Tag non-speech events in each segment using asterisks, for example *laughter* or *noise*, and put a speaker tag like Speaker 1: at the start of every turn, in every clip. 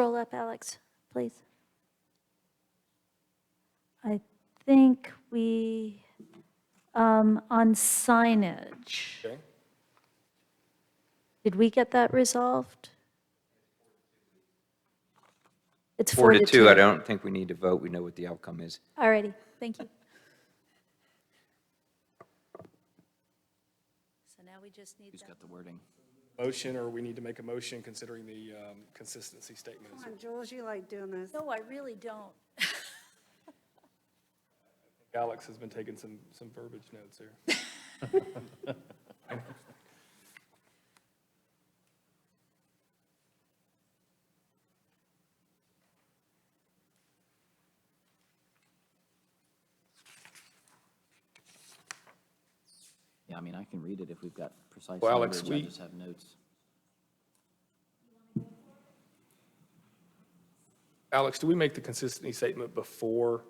Speaker 1: up, Alex, please?
Speaker 2: I think we, um, on signage,
Speaker 3: Okay.
Speaker 1: Did we get that resolved? It's
Speaker 3: Four to two, I don't think we need to vote, we know what the outcome is.
Speaker 1: All righty, thank you. So now we just need
Speaker 4: Who's
Speaker 1: that.
Speaker 4: got the wording?
Speaker 5: Motion, or we need to make a motion considering the um, consistency statement.
Speaker 6: Come on, Jules, you like doing this.
Speaker 1: No, I really don't.
Speaker 5: Alex has been taking some, some verbiage notes here.
Speaker 4: Yeah, I mean, I can read it if we've got precise
Speaker 5: Well, Alex,
Speaker 4: language.
Speaker 5: we-
Speaker 4: I just have notes.
Speaker 5: Alex, do we make the consistency statement before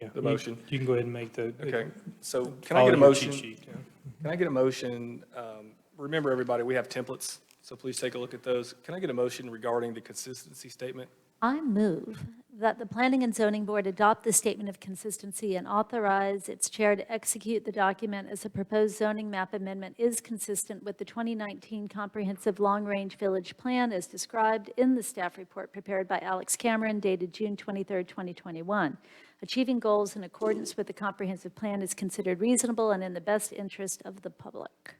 Speaker 7: Yeah,
Speaker 5: the
Speaker 7: you-
Speaker 5: motion?
Speaker 7: You can go ahead and make the.
Speaker 5: Okay, so can I
Speaker 7: follow
Speaker 5: get a
Speaker 7: your cheat
Speaker 5: motion?
Speaker 7: sheet, yeah.
Speaker 5: Can I get a motion? um, Remember, everybody, we have templates, so please take a look at those. Can I get a motion regarding the consistency statement?
Speaker 2: I move that the Planning and Zoning Board adopt the statement of consistency and authorize its chair to execute the document as the proposed zoning map amendment is consistent with the 2019 Comprehensive Long-Range Village Plan as described in the staff report prepared by Alex Cameron dated June 23, 2021. Achieving goals in accordance with the comprehensive plan is considered reasonable and in the best interest of the public.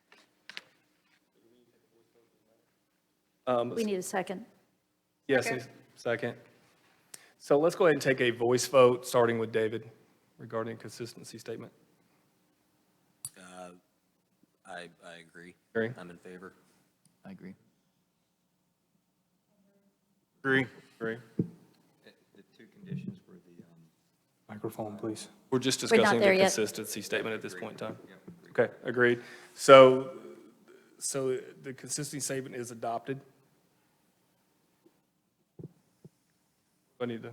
Speaker 2: We need a second.
Speaker 5: Yes, a second. So let's go ahead and take a voice vote, starting with David regarding consistency statement.
Speaker 8: Uh, I, I agree.
Speaker 5: Agree.
Speaker 8: I'm in favor.
Speaker 4: I agree.
Speaker 7: Agree.
Speaker 5: Agree.
Speaker 3: The two conditions were the, um,
Speaker 7: Microphone, please.
Speaker 5: We're just
Speaker 2: not
Speaker 5: discussing
Speaker 2: there
Speaker 5: the
Speaker 2: yet.
Speaker 5: consistency statement at this point in time. Okay, agreed. So, so the consistency statement is adopted? I need to,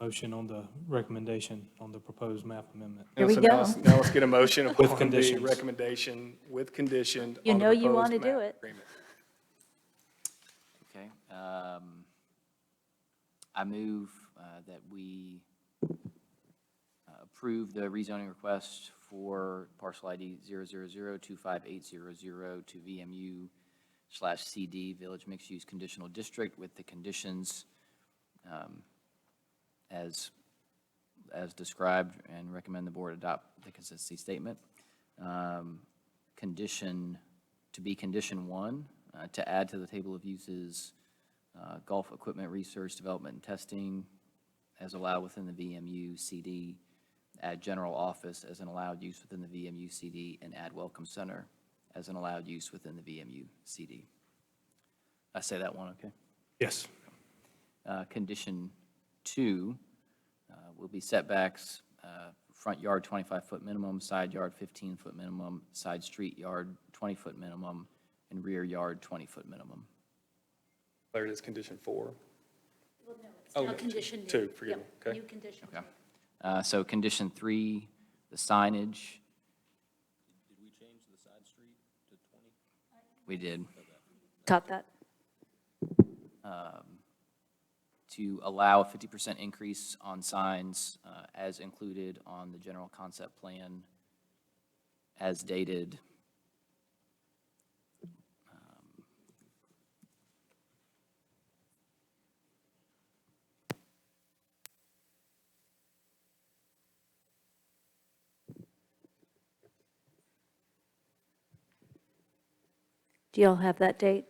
Speaker 7: Motion on the recommendation on the proposed map amendment.
Speaker 2: Here we
Speaker 5: so now
Speaker 2: go.
Speaker 5: let's- Now let's get a motion upon the
Speaker 7: conditions.
Speaker 5: recommendation with condition.
Speaker 2: You
Speaker 5: on the
Speaker 2: know you
Speaker 5: proposed
Speaker 2: wanna do
Speaker 5: map
Speaker 2: it.
Speaker 5: agreement.
Speaker 4: Okay. um, I move uh, that we uh, approve the rezoning request for parcel ID 000258000 to VMU slash CD Village Mixed Use Conditional District with the conditions um, as, as described and recommend the board adopt the consistency statement. Um, Condition, to be condition one, uh, to add to the table of uses uh, golf equipment research, development, and testing as allowed within the VMU CD, add general office as an allowed use within the VMU CD, and add welcome center as an allowed use within the VMU CD. I say that one, okay?
Speaker 7: Yes.
Speaker 4: Uh, Condition two uh, will be setbacks, uh, front yard 25-foot minimum, side yard 15-foot minimum, side street yard 20-foot minimum, and rear yard 20-foot minimum.
Speaker 5: There it is, condition four.
Speaker 2: Now
Speaker 5: Oh,
Speaker 2: condition
Speaker 5: two,
Speaker 2: two. Yep,
Speaker 5: forgive me, okay.
Speaker 2: New condition.
Speaker 4: Okay. Uh, So condition three, the signage. Did we change the side street to 20? We did.
Speaker 2: Got that.
Speaker 4: to allow a 50% increase on signs uh, as included on the general concept plan as dated. um,
Speaker 2: Do y'all have that date?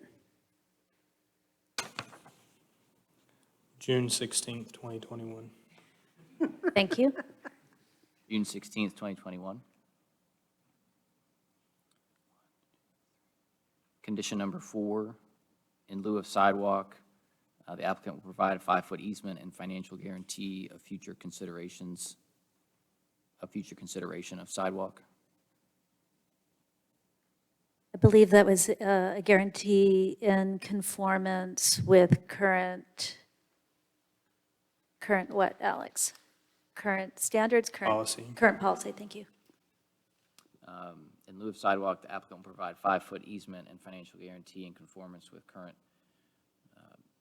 Speaker 7: June sixteenth, twenty twenty-one.
Speaker 2: Thank *laughs* you.
Speaker 4: June 16th, 2021. Condition number four, in lieu of sidewalk, uh, the applicant will provide a five-foot easement and financial guarantee of future considerations, of future consideration of sidewalk.
Speaker 2: I believe that was uh, a guarantee in conformance with current, current what, Alex? Current standards, current?
Speaker 7: Policy.
Speaker 2: Current policy, thank you.
Speaker 4: Um, In lieu of sidewalk, the applicant will provide five-foot easement and financial guarantee in conformance with current